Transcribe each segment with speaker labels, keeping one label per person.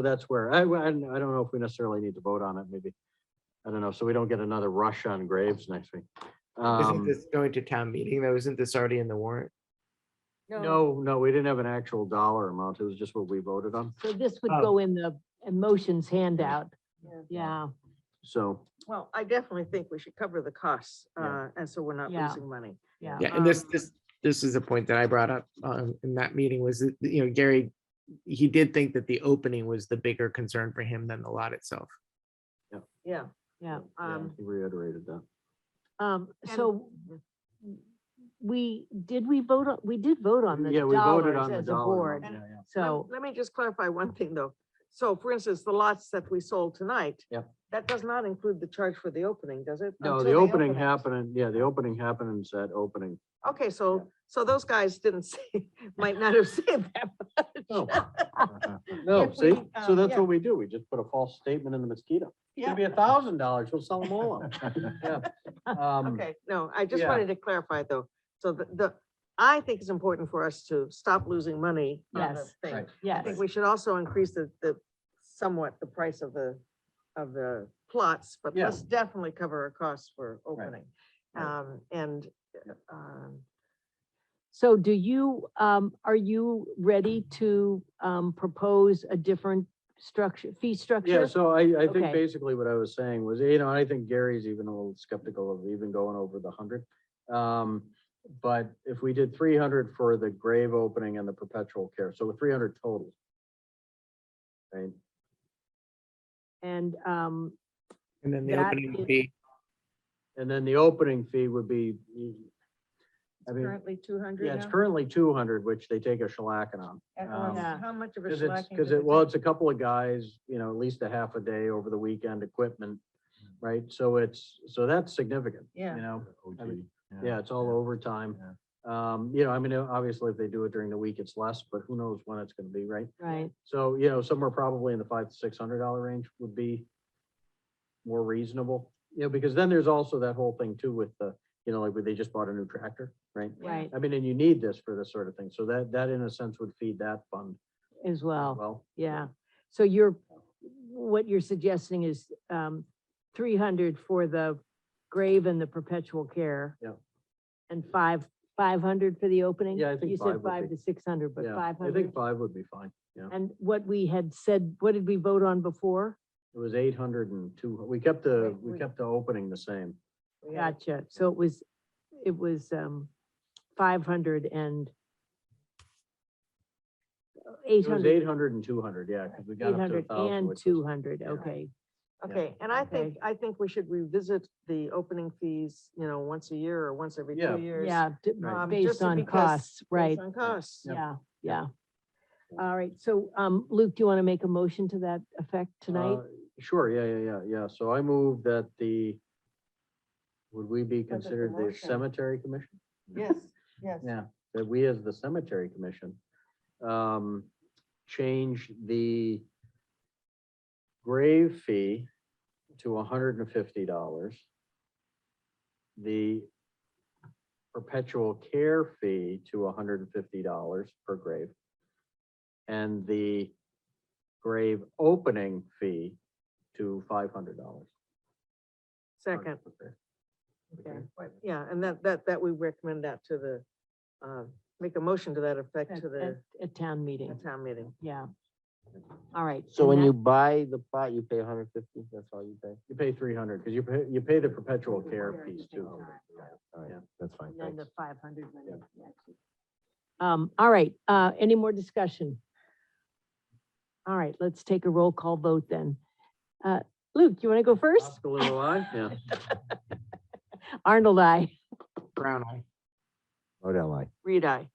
Speaker 1: So that's where, I, I don't I don't know if we necessarily need to vote on it, maybe. I don't know, so we don't get another rush on Graves next week.
Speaker 2: Isn't
Speaker 1: Um,
Speaker 2: this going to town meeting though? Isn't this already in the warrant?
Speaker 1: No, no, we didn't have an actual dollar amount. It was just what we voted on.
Speaker 3: So this would
Speaker 2: Oh.
Speaker 3: go in the emotions handout, yeah.
Speaker 1: So,
Speaker 4: Well, I definitely think we should cover the costs, uh,
Speaker 1: Yeah.
Speaker 4: and so we're not
Speaker 3: Yeah.
Speaker 4: losing money.
Speaker 3: Yeah.
Speaker 2: Yeah, and this,
Speaker 4: Um,
Speaker 2: this, this is a point that I brought up um, in that meeting was, that, you know, Gary, he did think that the opening was the bigger concern for him than the lot itself.
Speaker 4: Yeah.
Speaker 3: Yeah,
Speaker 1: yeah,
Speaker 4: Um,
Speaker 1: he reiterated that.
Speaker 3: um,
Speaker 4: And-
Speaker 3: so we, did we vote, on? we did vote on the
Speaker 1: Yeah, we voted on
Speaker 3: dollars
Speaker 1: the
Speaker 3: as a
Speaker 1: dollar.
Speaker 3: board,
Speaker 1: amount, yeah, yeah.
Speaker 4: let-
Speaker 3: so,
Speaker 4: Let me just clarify one thing though. So for instance, the lots that we sold tonight.
Speaker 1: Yep.
Speaker 4: That does not include the charge for the opening, does it?
Speaker 1: No,
Speaker 4: Until
Speaker 1: the
Speaker 4: they
Speaker 1: opening
Speaker 4: open it.
Speaker 1: happened, yeah, the opening happened at opening.
Speaker 4: Okay, so, so those guys didn't say, might not have said that.
Speaker 1: No,
Speaker 4: If
Speaker 1: No,
Speaker 4: we,
Speaker 1: see, so
Speaker 4: um,
Speaker 1: that's
Speaker 4: yeah.
Speaker 1: what we do. We just put a false statement in the mosquito. It's gonna be a thousand dollars. We'll sell them all. out. Yeah. Um,
Speaker 4: Okay, no, I just
Speaker 1: yeah.
Speaker 4: wanted to clarify though. So the, the, I think it's important for us to stop losing money on the
Speaker 3: Yes.
Speaker 4: thing.
Speaker 1: Right.
Speaker 4: I
Speaker 3: yes.
Speaker 4: think we should also increase the, the, somewhat the price of the, of the plots, but
Speaker 1: Yeah.
Speaker 4: let's definitely cover our costs for opening.
Speaker 1: Right.
Speaker 4: Um, and, um,
Speaker 3: So do you, um, are you ready to, um, propose a different structure, fee structure?
Speaker 1: Yeah, so I, I think
Speaker 3: Okay.
Speaker 1: basically what I was saying was, you know, I think Gary's even a little skeptical of even going over the hundred. Um, but if we did three hundred for the grave opening and the perpetual care, so three hundred total. Right,
Speaker 3: And, um,
Speaker 2: And then the
Speaker 3: That
Speaker 2: opening
Speaker 3: is-
Speaker 2: would be,
Speaker 1: and then the opening fee would be. I mean,
Speaker 4: currently two hundred
Speaker 1: yeah, it's currently two hundred, which they take a shellacking on. um,
Speaker 3: Yeah.
Speaker 4: How much of a
Speaker 1: Cause it's,
Speaker 4: shellacking?
Speaker 1: cause
Speaker 4: did
Speaker 1: it,
Speaker 4: we
Speaker 1: well,
Speaker 4: take?
Speaker 1: it's a couple of guys, you know, at least a half a day over the weekend equipment, right? So it's, so that's significant, you
Speaker 4: Yeah.
Speaker 1: know? I mean,
Speaker 5: OT,
Speaker 1: Yeah, it's all overtime.
Speaker 5: Yeah.
Speaker 1: Um, you know, I mean, obviously if they do it during the week, it's less, but who knows when it's gonna be, right?
Speaker 3: right,
Speaker 1: So, you know, somewhere probably in the five to six hundred dollar range would be more reasonable, you know, because then there's also that whole thing too with the, you know, like where they just bought a new tractor, right?
Speaker 4: Yeah.
Speaker 3: right,
Speaker 1: I mean, and you need this for this sort of thing. So that, that in a sense would feed that fund
Speaker 3: as
Speaker 1: as
Speaker 3: well,
Speaker 1: well.
Speaker 3: yeah. So you're, what you're suggesting is, um, three hundred for the grave and the perpetual care.
Speaker 1: Yeah.
Speaker 3: And five, five hundred for the opening?
Speaker 1: Yeah, I think
Speaker 3: You
Speaker 1: five
Speaker 3: said
Speaker 1: would
Speaker 3: five
Speaker 1: be-
Speaker 3: to six hundred, but
Speaker 1: Yeah,
Speaker 3: five
Speaker 1: I
Speaker 3: hundred?
Speaker 1: think five would be fine, yeah.
Speaker 3: And what we had said, what did we vote on before?
Speaker 1: It was eight hundred and two, we kept the,
Speaker 4: Wait,
Speaker 1: we
Speaker 4: wait.
Speaker 1: kept the opening the same.
Speaker 4: We had-
Speaker 3: Gotcha. So it was, it was, um, five hundred and eight
Speaker 1: It was
Speaker 3: hundred,
Speaker 1: eight hundred and two hundred, yeah, because we
Speaker 3: eight
Speaker 1: got up to a
Speaker 3: hundred
Speaker 1: thousand.
Speaker 3: and
Speaker 1: which was-
Speaker 3: two hundred,
Speaker 1: yeah.
Speaker 3: okay.
Speaker 1: Yeah.
Speaker 4: Okay, and I think,
Speaker 3: Okay.
Speaker 4: I think we should revisit the opening fees, you know, once a year or once every
Speaker 1: Yeah.
Speaker 4: two years.
Speaker 3: Yeah, d-
Speaker 1: Right.
Speaker 4: um, just
Speaker 3: based on
Speaker 4: because-
Speaker 3: costs,
Speaker 4: based
Speaker 3: right,
Speaker 4: On costs.
Speaker 3: yeah, yeah. All right, so, um, Luke, do you want to make a motion to that effect tonight?
Speaker 1: Uh, Sure, yeah, yeah, yeah, yeah. So I move that the, would we be
Speaker 4: But it's a
Speaker 1: considered the
Speaker 4: motion.
Speaker 1: cemetery commission?
Speaker 4: Yes, yes.
Speaker 1: Yeah, that we as the cemetery commission, um, change the grave fee to hundred and fifty dollars. The perpetual care fee to hundred and fifty dollars per grave. And the grave opening fee to five hundred dollars.
Speaker 4: Second,
Speaker 1: Okay.
Speaker 4: Right, yeah, and that, that, that we recommend that to the, uh, make a motion to that effect
Speaker 3: At,
Speaker 4: to the
Speaker 3: at- at town meeting,
Speaker 4: the town meeting.
Speaker 3: yeah. All right.
Speaker 6: So
Speaker 3: and
Speaker 6: when
Speaker 3: that-
Speaker 6: you buy the plot, you pay hundred fifty, that's all you pay?
Speaker 1: You pay three hundred, because you pay, you pay the perpetual care piece too.
Speaker 6: All
Speaker 1: Yeah.
Speaker 6: right, that's fine,
Speaker 3: And then
Speaker 6: thanks.
Speaker 3: the five hundred. Um, all right, uh, any more discussion? All right, let's take a roll call vote then. Uh, Luke, you want to go first?
Speaker 1: Oscar Lilo, aye? Yeah.
Speaker 3: Arnold, I.
Speaker 2: brown eye.
Speaker 6: Model I.
Speaker 3: Reed, I.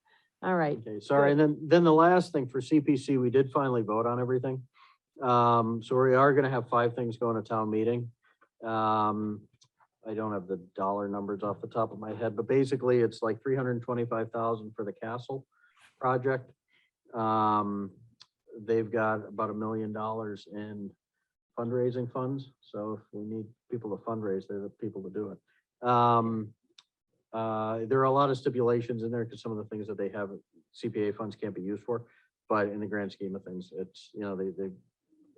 Speaker 3: All right,
Speaker 1: Okay, sorry. And then, then the last thing for CPC, we did finally vote on everything. Um, so we are gonna have five things going to town meeting. Um, I don't have the dollar numbers off the top of my head, but basically it's like three hundred and twenty-five thousand for the castle project. Um, they've got about a million dollars in fundraising funds, so if we need people to fundraise, they're the people to do it. Um, uh, there are a lot of stipulations in there because some of the things that they have CPA funds can't be used for. But in the grand scheme of things, it's, you know, they, they